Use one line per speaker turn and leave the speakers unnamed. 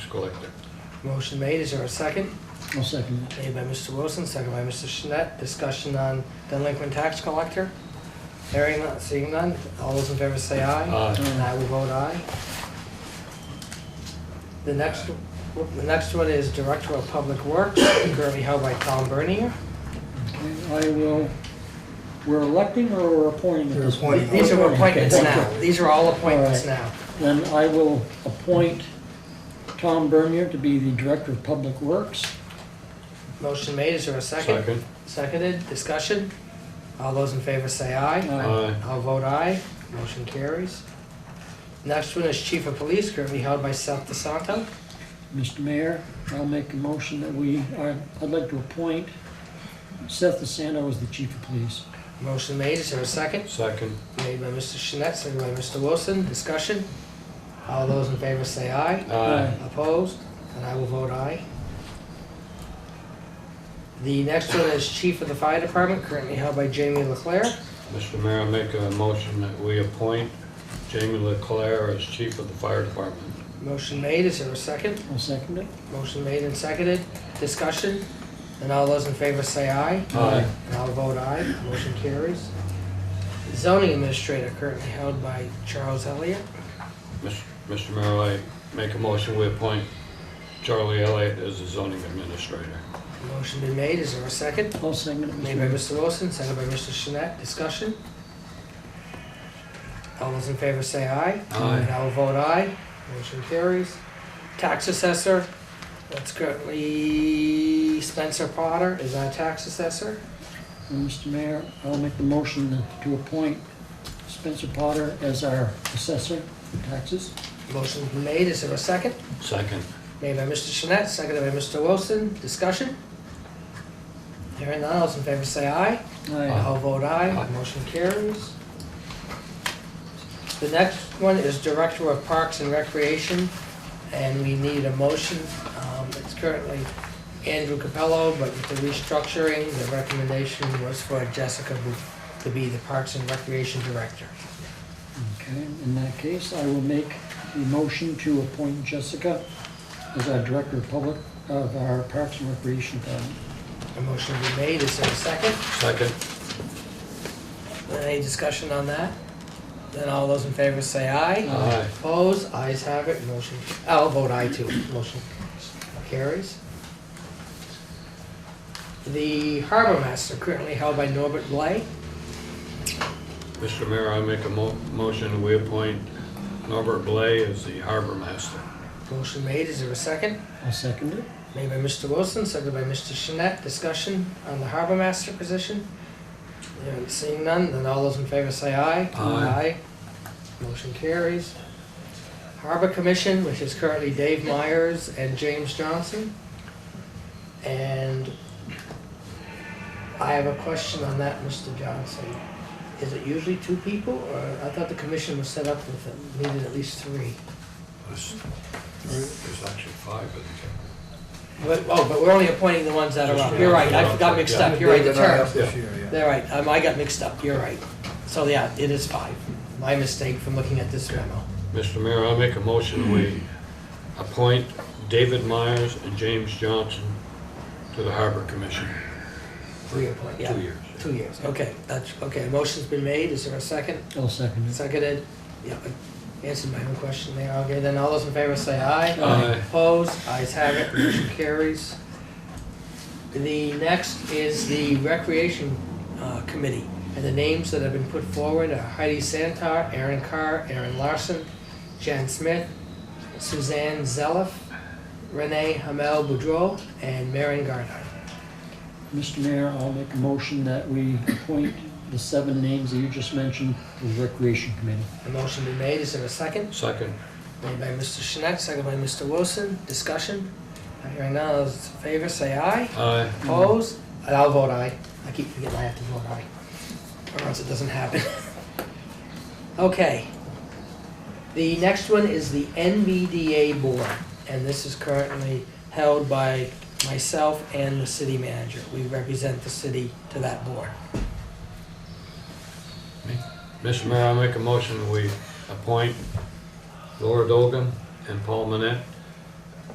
collector.
Motion made, is there a second?
I'll second it.
Made by Mr. Wilson, second by Mr. Shinet. Discussion on delinquent tax collector. Hearing none, seeing none. All those in favor say aye.
Aye.
And I will vote aye. The next, the next one is Director of Public Works, currently held by Tom Bernier.
Okay, Uh, I will, we're electing or we're appointing at
We're
this
appointing.
point?
These are appointments
Okay,
now.
thank you.
These are all appointments
All right.
now.
Then I will appoint Tom Bernier to be the Director of Public Works.
Motion made, is there a second?
Second.
Seconded, discussion. All those in favor say aye.
Aye.
I'll vote aye, motion carries. Next one is Chief of Police, currently held by Seth DeSanto.
Mr. Mayor, I'll make a motion that we, I- I'd like to appoint Seth DeSanto as the Chief of Police.
Motion made, is there a second?
Second.
Made by Mr. Shinet, seconded by Mr. Wilson, discussion. All those in favor say aye.
Aye.
Opposed? And I will vote aye. The next one is Chief of the Fire Department, currently held by Jamie Leclerc.
Mr. Mayor, I make a motion that we appoint Jamie Leclerc as chief of the fire department.
Motion made, is there a second?
I'll second it.
Motion made and seconded, discussion. And all those in favor say aye.
Aye.
And I'll vote aye, motion carries. Zoning administrator currently held by Charles Elliott.
Mis- Mr. Mayor, I make a motion we appoint Charlie Elliott as the zoning administrator.
Motion been made, is there a second?
I'll second it, Mr.
Made by
Mayor.
Mr. Wilson, second by Mr. Shinet, discussion. All those in favor say aye.
Aye.
And I will vote aye, motion carries. Tax assessor, that's currently Spencer Potter is our tax assessor.
And Mr. Mayor, I'll make the motion to appoint Spencer Potter as our assessor for taxes.
Motion been made, is there a second?
Second.
Made by Mr. Shinet, seconded by Mr. Wilson. Discussion? Hearing none, all those in favor say aye.
Uh-huh.
Aye.
I'll vote aye,
Aye.
motion carries. The next one is Director of Parks and Recreation, and we need a motion. Um, It's currently Andrew Capello, but with the restructuring, the recommendation was for Jessica Booth to be the Parks and Recreation Director.
Okay, in that case, I will make the motion to appoint Jessica as our Director of Public, of our Parks and Recreation Department.
A motion be made, is there a second?
Second.
Any discussion on that? Then all those in favor say aye.
Aye.
Opposed, ayes have it, motion, I'll vote aye too, motion carries. The harbor master currently held by Norbert Blay.
Mr. Mayor, I make a mo- motion we appoint Norbert Blay as the harbor master.
Motion made, is there a second?
I'll second it.
Made by Mr. Wilson, seconded by Mr. Shinet. Discussion on the harbor master position? Hearing- Seeing none, then all those in favor say aye.
Aye.
Aye. Motion carries. Harbor Commission, which is currently Dave Myers and James Johnson. And I have a question on that, Mr. Johnson. Is it usually two people, or I thought the commission was set up with, uh, needed at least three?
There's there's actually five, isn't there?
But, oh, but we're only appointing the ones that are up. You're right, I got mixed up, you're right, the
They're not
term.
up this year, yeah.
They're right, um, I got mixed up, you're right. So, yeah, it is five. My mistake from looking at this memo.
Mr. Mayor, I make a motion we appoint David Myers and James Johnson to the harbor commission.
Three appoint, yeah.
Two years.
Two years, okay, that's, okay, motion's been made, is there a second?
I'll second it.
Seconded, yeah, I answered my own question there, okay, then all those in favor say aye.
Aye.
Opposed, ayes have it, motion carries. The next is the Recreation uh, Committee, and the names that have been put forward are Heidi Santar, Aaron Carr, Aaron Larson, Jan Smith, Suzanne Zeliff, Renee Hamel Boudreau, and Marion Gardner.
Mr. Mayor, I'll make a motion that we appoint the seven names that you just mentioned to the Recreation Committee.
The motion be made, is there a second?
Second.
Made by Mr. Shinet, second by Mr. Wilson. Discussion? Not Hearing none, all those in favor say aye.
Aye.
Opposed? And I'll vote aye. I keep forgetting I have to vote aye, or else it doesn't happen. Okay. The next one is the NBDA Board, and this is currently held by myself and the city manager. We represent the city to that board.
Mr. Mayor, I make a motion we appoint Laura Dogan and Paul Manette